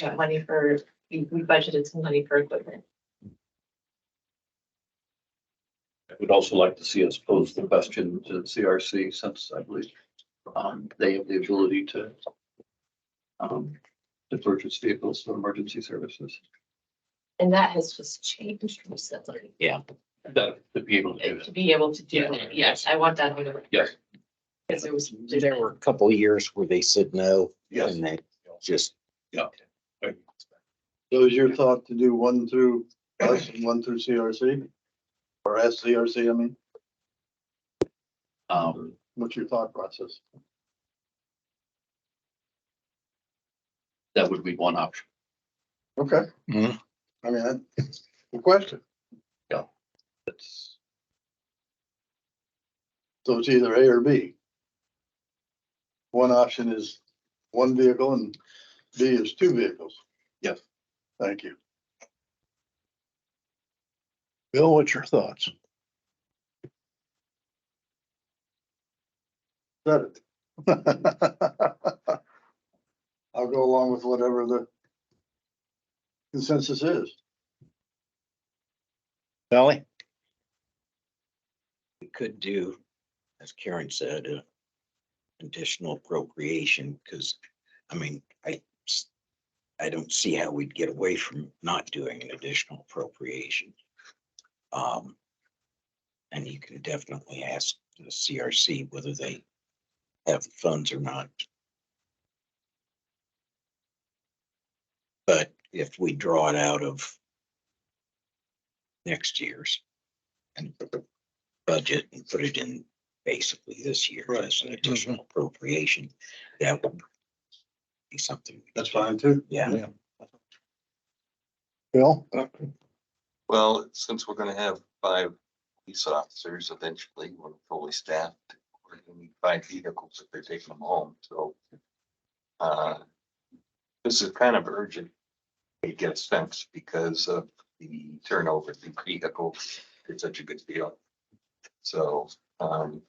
got money for, we we budgeted some money for equipment. I would also like to see us pose the question to CRC since I believe um, they have the ability to um, to purchase vehicles for emergency services. And that has just changed recently. That to be able to do To that. be able to do that, yes, I want that on the record. Yes. Because there was. There were a couple of years where they said no. Yes. And they just, So is your thought to do one through us and one through CRC? Or SCRC, I mean, Um, what's your thought process? that would be one option. Okay. Mhm. I mean, that's the question. That's, So it's either A or B. One option is one vehicle and B is two vehicles. Yes. Thank you. Bill, what's your thoughts? Said it. I'll go along with whatever the consensus is. Sally? We could do, as Karen said, a additional appropriation, because, I mean, I, s- I don't see how we'd get away from not doing an additional appropriation. Um, and you can definitely ask the CRC whether they have the funds or not. But if we draw it out of next year's and put the budget and put it in basically this year Right. as an additional appropriation, that would be something. That's fine too. Yeah, Bill? Well, since we're gonna have five police officers eventually, we're fully staffed. We're gonna need five vehicles if they're taking them home, so. Uh, this is kind of urgent. It gets spent because of the turnover of the vehicle. It's such a good deal. So, um,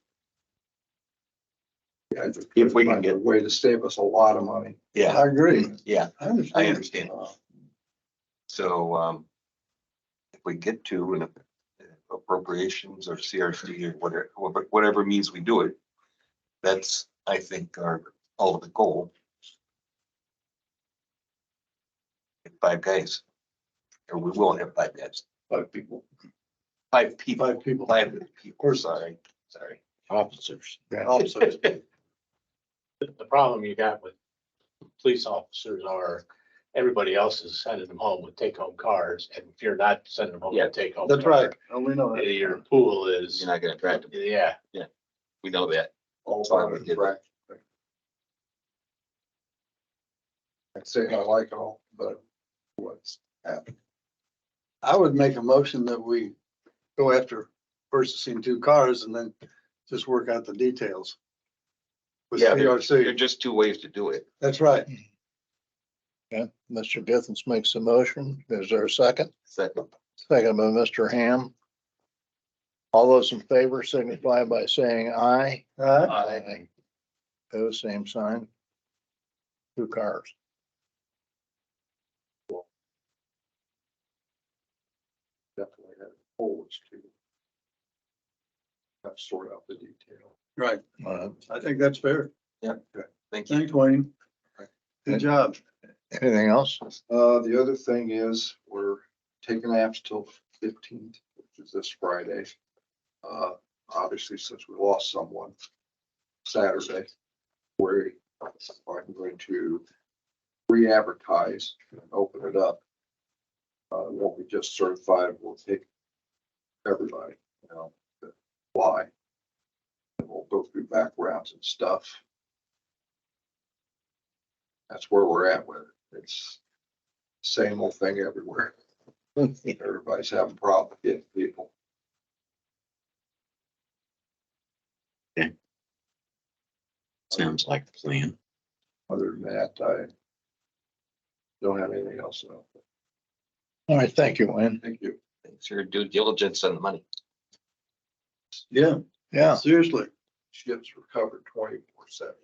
if we can get- a Way to save us a lot of money. yeah, I agree. yeah, I understand. Uh, I understand. so, um. If we get to an appropriations or CRC or whatever, whatever means we do it. That's, I think, our ultimate goal. Get Five guys. Or we will have five guys, five people. five people, Five people. five people, sorry, sorry. officers. Also, the the problem you got with police officers are everybody else is sending them home with take-home cars, and if you're not sending them home Yeah, with take-home. That's car, right. And we know that. Your pool is, You're not gonna attract them, yeah, we know that. All That's why we did it. I'd say I like it all, but what's happening? I would make a motion that we go after purchasing two cars and then just work out the details. With Yeah, there- There are PRC. just two ways to do it. That's right. Okay, Mr. Githens makes a motion. Is there a second? Second, Second by Mr. Ham. All those in favor signify by saying aye. Huh? Aye. Pose same sign. Two cars. definitely had holes to have sort out the detail. Right, Uh, I think that's fair. thank you. Thanks, Wayne. Good job. Anything else? Uh, the other thing is, we're taking apps till fifteenth, which is this Friday. Uh, obviously, since we lost someone Saturday, we're, I'm going to re-advertise and open it up. Uh, it won't be just certified, we'll take everybody, you know, that apply. And we'll go through backgrounds and stuff. That's where we're at with it. It's same old thing everywhere. Everybody's having problems getting people. Sounds like a plan. Other than that, I don't have anything else. so All right, thank you, Wayne. Thank you. It's your due diligence on the money. Yeah, Yeah, seriously. Ships recovered twenty-four seven.